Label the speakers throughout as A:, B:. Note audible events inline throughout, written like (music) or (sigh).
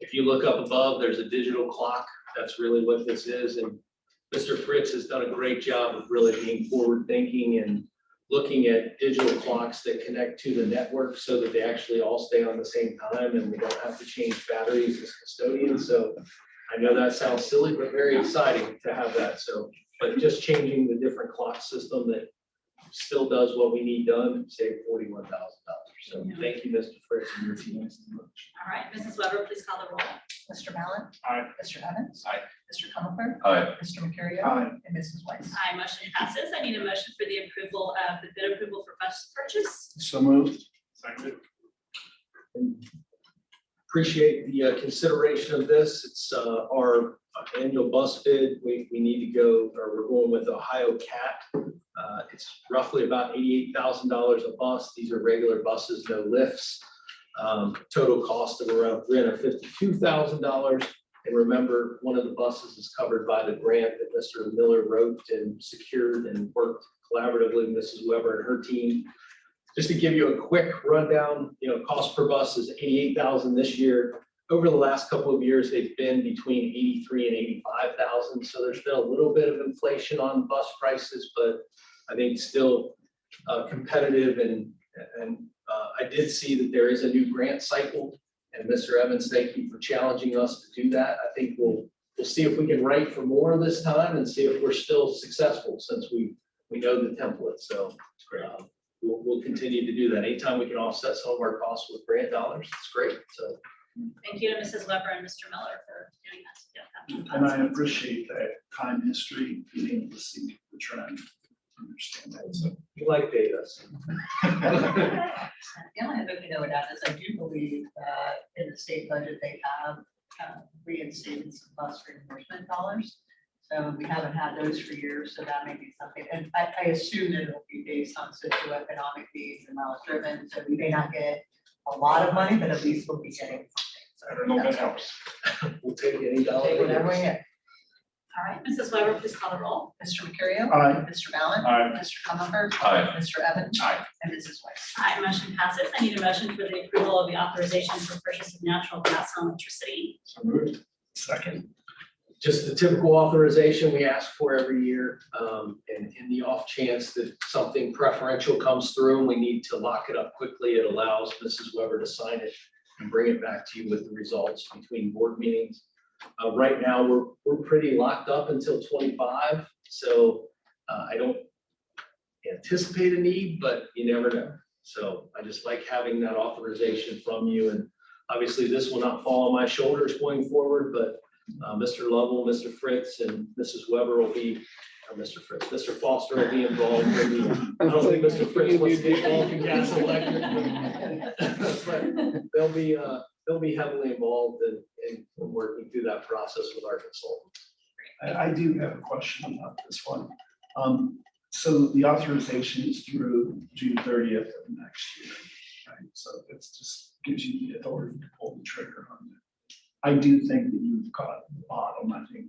A: If you look up above, there's a digital clock. That's really what this is. And Mr. Fritz has done a great job of really being forward-thinking and looking at digital clocks that connect to the network so that they actually all stay on the same time and we don't have to change batteries as custodians. So I know that sounds silly, but very exciting to have that. So, but just changing the different clock system that still does what we need done and save forty-one thousand dollars. So thank you, Mr. Fritz and your team.
B: All right, Mrs. Weber, please call the roll.
C: Mr. Mallon.
A: Aye.
C: Mr. Evans.
A: Aye.
C: Mr. Comer.
D: Aye.
C: Mr. Mercurio.
A: Aye.
C: And Mrs. Weiss.
B: Aye, motion passes. I need a motion for the approval of the bid approval for bus purchase.
D: So moved.
A: And Appreciate the uh, consideration of this. It's uh, our annual bus bid. We, we need to go, or we're going with Ohio Cat. Uh, It's roughly about eighty-eight thousand dollars a bus. These are regular buses, no lifts. Um, Total cost of around three hundred fifty-two thousand dollars. And remember, one of the buses is covered by the grant that Mr. Miller wrote and secured and worked collaboratively with Mrs. Weber and her team just to give you a quick rundown, you know, cost per bus is eighty-eight thousand this year. Over the last couple of years, they've been between eighty-three and eighty-five thousand, so there's been a little bit of inflation on bus prices, but I think still uh, competitive and, and uh, I did see that there is a new grant cycle. And Mr. Evans, thank you for challenging us to do that. I think we'll, we'll see if we can rank for more this time and see if we're still successful since we, we know the template, so. um, we'll, we'll continue to do that. Anytime we can offset some of our costs with grant dollars, it's great. So
B: Thank you to Mrs. Weber and Mr. Miller for doing that. Yeah, that-
D: And I appreciate that time history, being able to see the trend, understand that. so. (laughs)
A: we like data. so
C: The only thing we know about is I do believe that in the state budget, they have uh, reinstated some bus reimbursement dollars. So we haven't had those for years, so that may be something. And I, I assume that it'll be based on socioeconomic needs and miles driven. So we may not get a lot of money, but at least we'll be getting something. So that's-
D: helps.
A: We'll take any dollar.
C: Take whatever we
A: it is.
C: get.
B: All right, Mrs. Weber, please call the roll.
C: Mr. Mercurio.
D: Aye.
C: Mr. Mallon.
D: Aye.
C: Mr. Comer.
D: Aye.
C: Mr. Evans.
D: Aye.
C: And Mrs. Weiss.
B: Aye, motion passes. I need a motion for the approval of the authorization for purchase of natural gas and electricity.
D: So moved. Second.
A: Just the typical authorization we ask for every year. Um, and in the off chance that something preferential comes through and we need to lock it up quickly, it allows Mrs. Weber to sign it and bring it back to you with the results between board meetings. Uh, right now, we're, we're pretty locked up until twenty-five, so, uh, I don't anticipate a need, but you never know. So I just like having that authorization from you, and obviously, this will not fall on my shoulders going forward, but, uh, Mr. Lovell, Mr. Fritz, and Mrs. Weber will be, or Mr. Fritz, Mr. Foster will be involved, maybe, I don't think Mr. Fritz wants to be involved in gas and electric, but- but They'll be, uh, they'll be heavily involved in, in working through that process with our consultant.
D: I, I do have a question about this one. Um, so the authorization is through June thirtieth of next year, right? So it's just gives you the authority to pull the trigger on it. I do think that you've got the bottom, I think.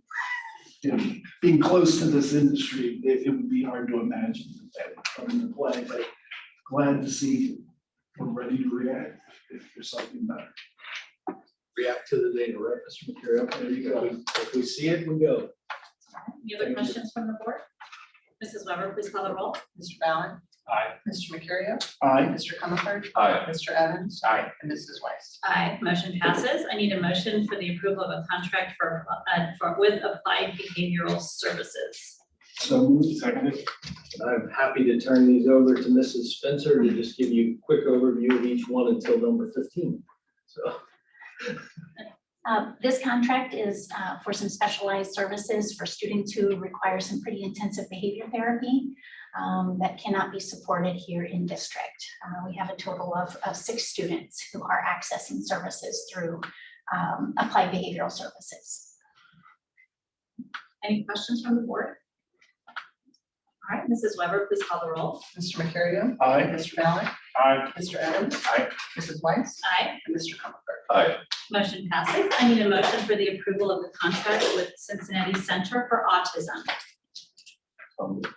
D: you know, Being close to this industry, it, it would be hard to imagine that that would come into play, but glad to see we're ready to react if there's something better.
A: React to the data, right, Mr. Material? There you go. If we see it, we go.
B: Any other questions from the board? Mrs. Weber, please call the roll.
C: Mr. Ballin.
D: Aye.
C: Mr. Mercurio.
D: Aye.
C: Mr. Comer.
D: Aye.
C: Mr. Evans.
D: Aye.
C: And Mrs. Weiss.
B: Aye, motion passes. I need a motion for the approval of a contract for, uh, for, with Applied Behavioral Services.
D: So moved. Seconded.
A: And I'm happy to turn these over to Mrs. Spencer to just give you a quick overview of each one until number fifteen. So
E: Uh, This contract is uh, for some specialized services for students who require some pretty intensive behavior therapy um, that cannot be supported here in district. Uh, We have a total of of six students who are accessing services through um, Applied Behavioral Services.
B: Any questions from the board? All right, Mrs. Weber, please call the roll.
C: Mr. Mercurio.
D: Aye.
C: Mr. Ballin.
D: Aye.
C: Mr. Evans.
D: Aye.
C: Mrs. Weiss.
B: Aye,
C: And Mr. Comer.
D: Aye.
B: motion passes. I need a motion for the approval of the contract with Cincinnati Center for Autism.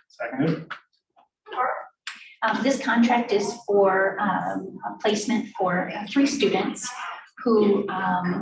D: Seconded.
E: Um, This contract is for um, a placement for uh, three students who um,